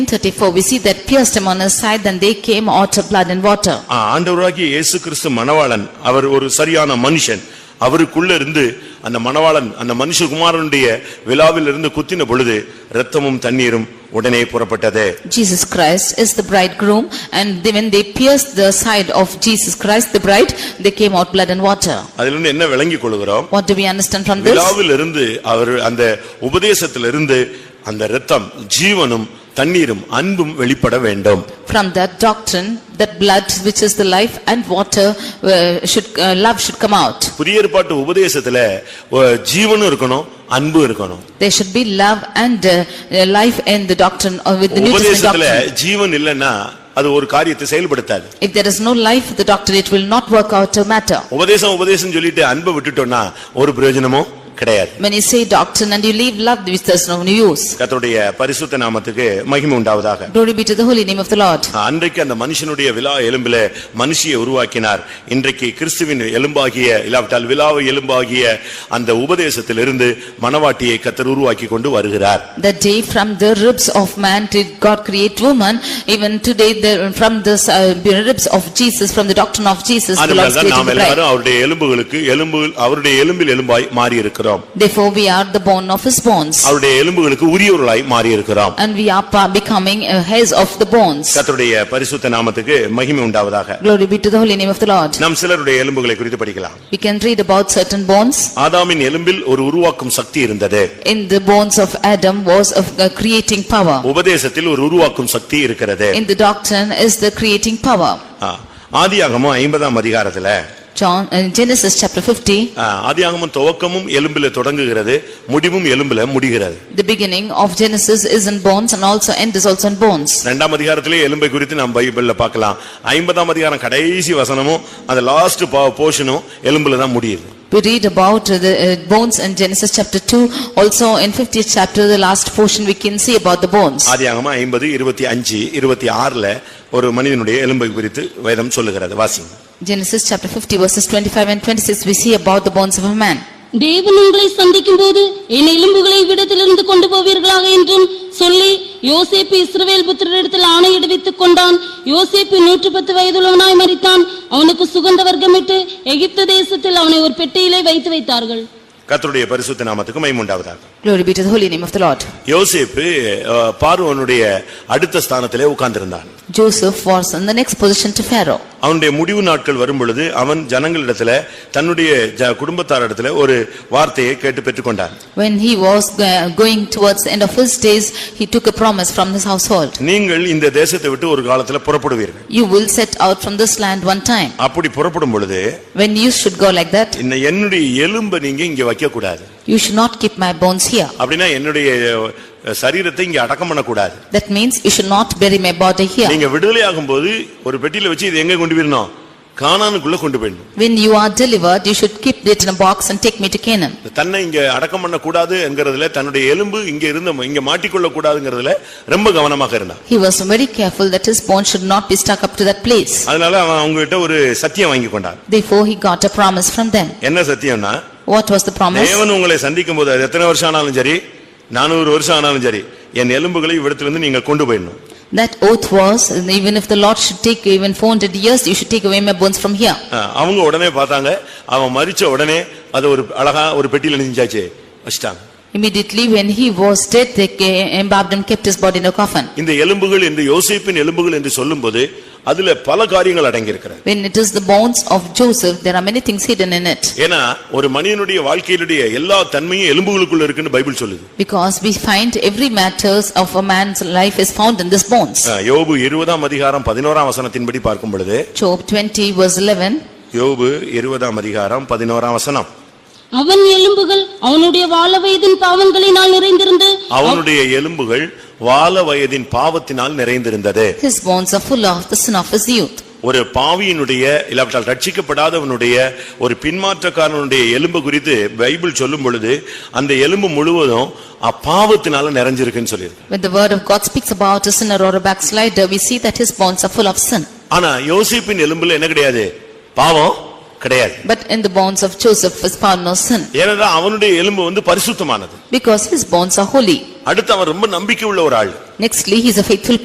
34, we see that pierced him on his side, then they came out of blood and water. ஆ, ஆண்டவராகிய இயேசு கிறிஸ்து மணவாளன் அவர் ஒரு சரியான மனுஷன் அவருக்குள்ள இருந்து அந்த மணவாளன் அந்த மனுஷகுமாரனுடைய விழாவில் இருந்து குத்தின பொழுது இரத்தமும் தண்ணீரும் உடனே புறப்பட்டது Jesus Christ is the bridegroom and they- when they pierced the side of Jesus Christ, the bride, they came out blood and water. அதிலிருந்து என்ன விளங்கிக் கொள்கிறோம் What do we understand from this? விழாவில் இருந்து அவர் அந்த உபதேசத்திலிருந்து அந்த இரத்தம் ஜீவனும் தண்ணீரும் அன்பும் வெளிப்பட வேண்டும் From that doctrine, that blood which is the life and water uh, should, uh, love should come out. புதிய ஏற்பாட்டு உபதேசத்துல அஹ், ஜீவனும் இருக்கணும் அன்பும் இருக்கணும் There should be love and uh, uh, life in the doctrine or with the New Testament உபதேசத்துல doctrine. ஜீவன் இல்லைன்னா அது ஒரு காரியத்தை செயல்படுத்தாது If there is no life, the doctrine, it will not work out a matter. உபதேசம் உபதேசம் சொல்லிட்டு அன்பை விட்டுட்டோம்னா ஒரு பிரயோஜனமும் கிடையாது When you say doctrine and you leave love, which there's no use. கர்த்தருடைய பரிசுத்த நாமத்துக்கு மகிமை உண்டாவதாக Glory be to the holy name of the Lord. அன்றைக்கு அந்த மனுஷனுடைய விழா எலும்பில மனுஷியை உருவாக்கினார் இன்றைக்கு கிறிஸ்துவின் எலும்பாகிய இல்லாவிட்டால் விழாவை எலும்பாகிய அந்த உபதேசத்திலிருந்து மணவாட்டியை கத்தர் உருவாக்கி கொண்டு வருகிறார் The day from the ribs of man did God create woman, even today the- from the uh, ribs of Jesus, from the doctrine of Jesus, the Lord அதனால்தான் created நாம் the bride. எல்லாரும் அவருடைய எலும்புகளுக்கு எலும்பு அவருடைய எலும்பில் எலும்பாய் மாறி இருக்கிறோம் Therefore we are the bone of his bones அவருடைய எலும்புகளுக்கு உரியவர்களாய் மாறி இருக்கிறோம் and we are pa- becoming uh, hairs of the bones. கர்த்தருடைய பரிசுத்த நாமத்துக்கு மகிமை உண்டாவதாக Glory be to the holy name of the Lord. நாம் சிலருடைய எலும்புகளை குறித்து படிக்கலாம் We can read about certain bones. ஆதாமின் எலும்பில் ஒரு உருவாக்கும் சக்தி இருந்தது In the bones of Adam was of uh, creating power. Oh, உபதேசத்தில் ஒரு உருவாக்கும் சக்தி இருக்கிறது In the doctrine is the creating power. ஆ, ஆதியாகமம் ஐம்பதாம் அதிகாரத்துல John, uh, Genesis chapter 50, ஆ, ஆதியாகமம் துவக்கமும் எலும்பில தொடங்குகிறது முடிவும் எலும்பில முடிகிறது the beginning of Genesis is in bones and also end is also in bones. இரண்டாம் அதிகாரத்திலே எலும்பை குறித்து நாம் பைபிள்ல பார்க்கலாம் ஐம்பதாம் அதிகாரம் கடைசி வசனமும் அந்த லாஸ்ட் போர்ஷனும் எலும்புல தான் முடியுது We read about uh, the uh, bones in Genesis chapter 2, also in 50th chapter, the last portion we can see about the bones. ஆதியாகமம் ஐம்பது இருபத்தி அஞ்சு இருபத்தி ஆறுல ஒரு மனிதனுடைய எலும்பை குறித்து வேதம் சொல்லுகிறது வாசிங்க Genesis chapter 50 verses 25 and 26, we see about the bones of a man. தேவன் உங்களை சந்திக்கும்போது என் எலும்புகளை இவ்விடத்திலிருந்து கொண்டு போவீர்களாக என்றும் சொல்லி யோசேப்பு இஸ்ரவேல் புத்திரரிடத்தில் ஆணையிடுவித்துக் கொண்டான் யோசேப்பு நூற்று பத்து வயதுள்ளவனாய் மரித்தான் அவனுக்கு சுகந்த வர்க்கமிட்டு எகிப்து தேசத்தில் அவனை ஒரு பெட்டியிலே வைத்து வைத்தார்கள் கர்த்தருடைய பரிசுத்த நாமத்துக்கு மைமுண்டாவதாக Glory be to the holy name of the Lord. யோசேப்பு அஹ், பார்வோனுடைய அடுத்த ஸ்தானத்திலே உட்கார்ந்திருந்தான் Joseph was in the next position to Pharaoh. அவனுடைய முடிவு நாட்கள் வரும் பொழுது அவன் ஜனங்களிடத்துல தன்னுடைய ஜ- குடும்பத்தாரிடத்துல ஒரு வார்த்தையை கேட்டு பெற்றுக்கொண்டான் When he was uh, going towards the end of his days, he took a promise from his household. நீங்கள் இந்த தேசத்தை விட்டு ஒரு காலத்துல புறப்படுவீர்கள் You will set out from this land one time. அப்படி புறப்படும் பொழுது When you should go like that, இந்த என்னுடைய எலும்பை நீங்க இங்க வைக்க கூடாது you should not keep my bones here. அப்படின்னா என்னுடைய அஹ், சரீரத்தை இங்க அடக்கம் பண்ணக்கூடாது That means you should not bury my body here. நீங்க விடுதலை ஆகும்போது ஒரு பெட்டியில வச்சு இது எங்க கொண்டு போயிடணும் கானானுக்குள்ள கொண்டு போயிடணும் When you are delivered, you should keep it in a box and take me to Canaan. தன்னை இங்க அடக்கம் பண்ணக்கூடாது என்கிறதுல தன்னுடைய எலும்பு இங்க இருந்த இங்க மாட்டிக்கொள்ள கூடாதுங்கிறதுல ரொம்ப கவனமாக இருந்தான் He was very careful that his bones should not be stuck up to that place. அதனால அவன் அவங்ககிட்ட ஒரு சத்தியம் வாங்கி கொண்டான் Therefore, he got a promise from them. என்ன சத்தியம்னா What was the promise? தேவன் உங்களை சந்திக்கும் போது அது எத்தனை வருஷம் ஆனாலும் சரி நானூறு வருஷம் ஆனாலும் சரி என் எலும்புகளை இவ்விடத்திலிருந்து நீங்க கொண்டு போயிடணும் That oath was, and even if the Lord should take you even 400 years, you should take away my bones from here. அஹ் அவங்க உடனே பார்த்தாங்க அவன் மரிச்ச உடனே அது ஒரு அழகா ஒரு பெட்டியில நெஞ்சாச்சு வச்சிட்டாங்க Immediately when he was dead, they ca- embalmed and kept his body in a coffin. இந்த எலும்புகள் என்று யோசிப்பின் எலும்புகள் என்று சொல்லும்போது அதுல பல காரியங்கள் அடங்கியிருக்கிறது When it is the bones of Joseph, there are many things hidden in it. ஏன்னா ஒரு மனிதனுடைய வாழ்க்கையிலுடைய எல்லா தன்மையும் எலும்புகளுக்குள்ள இருக்குன்னு பைபிள் சொல்லுது Because we find every matters of a man's life is found in these bones. அஹ் யோபு இருபதாம் அதிகாரம் பதினோராம் வசனத்தின்படி பார்க்கும் பொழுது Job 20 verse 11, யோபு இருபதாம் அதிகாரம் பதினோராம் வசனம் அவன் எலும்புகள் அவனுடைய வாழ வயதின் பாவங்களினால் நிறைந்திருந்து அவனுடைய எலும்புகள் வால வயதின் பாவத்தினால் நிறைந்திருந்தது his bones are full of the sin of his youth. ஒரு பாவியினுடைய இல்லாவிட்டால் ரட்சிக்கப்படாதவனுடைய ஒரு பின்மாற்றக்காரனுடைய எலும்பு குறித்து பைபிள் சொல்லும் பொழுது அந்த எலும்பு முழுவதும் அப்பாவத்தினால நிறைஞ்சிருக்குன்னு சொல்லியிருக்கு When the word of God speaks about a sinner or a backslider, we see that his bones are full of sin. ஆனா யோசிப்பின் எலும்புல என்ன கிடையாது பாவம் கிடையாது But in the bones of Joseph was found no sin, ஏனென்றால் அவனுடைய எலும்பு வந்து பரிசுத்தமானது because his bones are holy. அடுத்து அவன் ரொம்ப நம்பிக்கை உள்ள ஒரு ஆள் Nextly, he is a faithful